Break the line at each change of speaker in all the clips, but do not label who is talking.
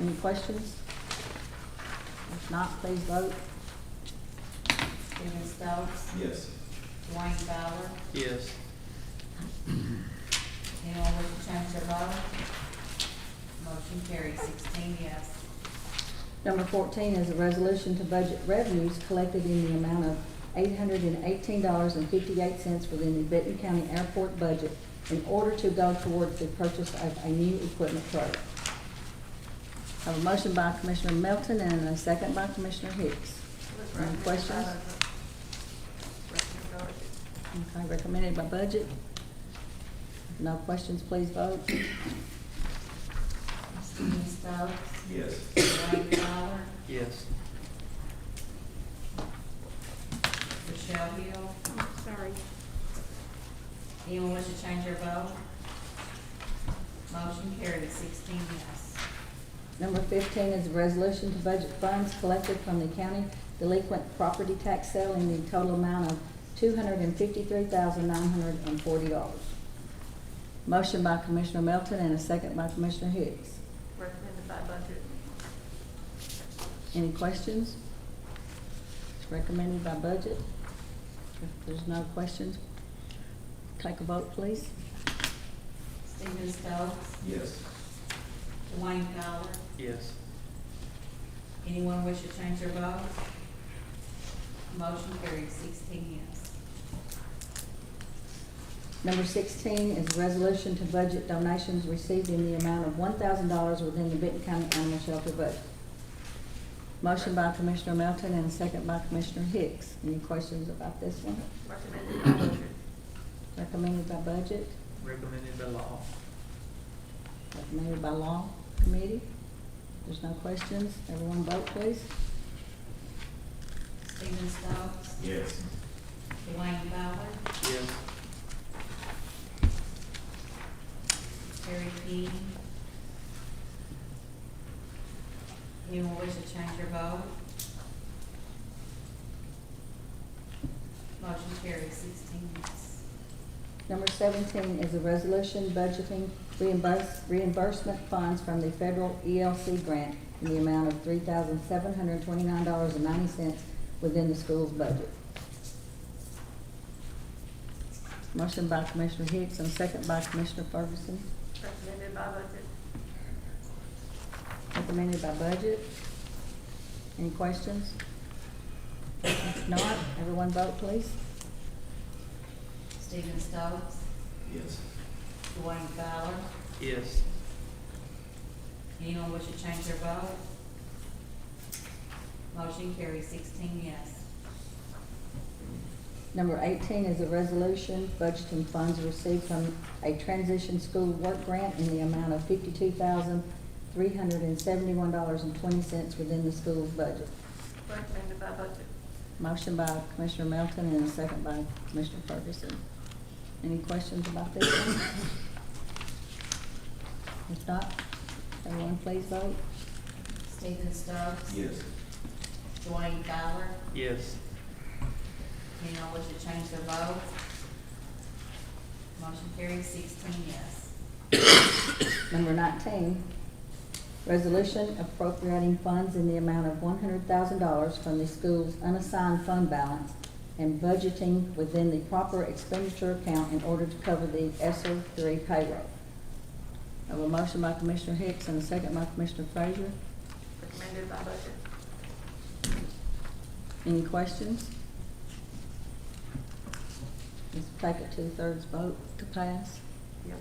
Any questions? If not, please vote.
Stephen Stokes,
Yes.
Dwayne Fowler,
Yes.
anyone wish to change their vote? Motion carries sixteen yes.
Number fourteen is a resolution to budget revenues collected in the amount of eight hundred and eighteen dollars and fifty-eight cents within the Benton County Airport budget in order to go towards the purchase of a new equipment truck. Have a motion by Commissioner Melton and a second by Commissioner Hicks. Any questions? Okay, recommended by budget. No questions, please vote.
Stephen Stokes,
Yes.
Dwayne Fowler,
Yes.
Michelle Hill,
Oh, sorry.
anyone wish to change their vote? Motion carries sixteen yes.
Number fifteen is a resolution to budget funds collected from the county delinquent property tax sale in the total amount of two hundred and fifty-three thousand nine hundred and forty dollars. Motion by Commissioner Melton and a second by Commissioner Hicks.
Recommended by budget.
Any questions? It's recommended by budget. If there's no questions, take a vote, please.
Stephen Stokes,
Yes.
Dwayne Fowler,
Yes.
anyone wish to change their vote? Motion carries sixteen yes.
Number sixteen is resolution to budget donations received in the amount of one thousand dollars within the Benton County Animal Shelter budget. Motion by Commissioner Melton and a second by Commissioner Hicks. Any questions about this one?
Recommended
Recommended by
by budget.
budget,
Recommended by law.
recommended by law committee. There's no questions. Everyone vote, please.
Stephen Stokes,
Yes.
Dwayne Fowler,
Yes.
Terry Dean. Anyone wish to change your vote? Motion carries sixteen yes.
Number seventeen is a resolution budgeting reimburse, reimbursement funds from the federal ELC grant in the amount of three thousand seven hundred twenty-nine dollars and ninety cents within the school's budget. Motion by Commissioner Hicks and second by Commissioner Ferguson,
Recommended by budget.
recommended by budget. Any questions? If not, everyone vote please.
Stephen Stokes,
Yes.
Dwayne Fowler,
Yes.
anyone wish to change their vote? Motion carries sixteen yes.
Number 18 is a resolution budgeting funds received from a transition school work grant in the amount of $52,371.20 within the school's budget.
Recommended by budget.
Motion by Commissioner Melton and a second by Commissioner Ferguson. Any questions about this one? If not, everyone please vote.
Stephen Stokes.
Yes.
Dwayne Fowler,
Yes.
anyone wish to change their vote? Motion carries sixteen yes.
Number 19, resolution appropriating funds in the amount of $100,000 from the school's unassigned fund balance and budgeting within the proper expenditure account in order to cover the ESER three payroll. I have a motion by Commissioner Hicks and a second by Commissioner Frazier.
Recommended by budget.
Any questions? Let's take a two-thirds vote to pass.
Yep.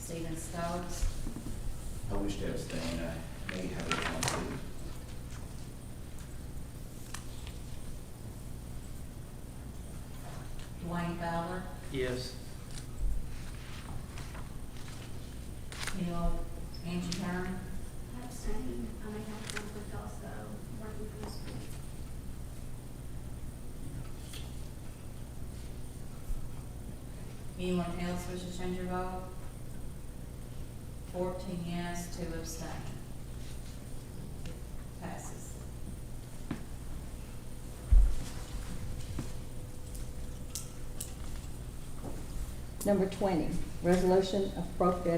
Stephen Stokes,
I wish to abstain. I may have a conflict.
Dwayne Fowler,
Yes.
Neil, Angie Hearn,
I'm saying, I may have conflict also, working for the school.
anyone else wish to change your vote? Fourteen yes, two abstain. Passes.
Number 20, resolution appropriating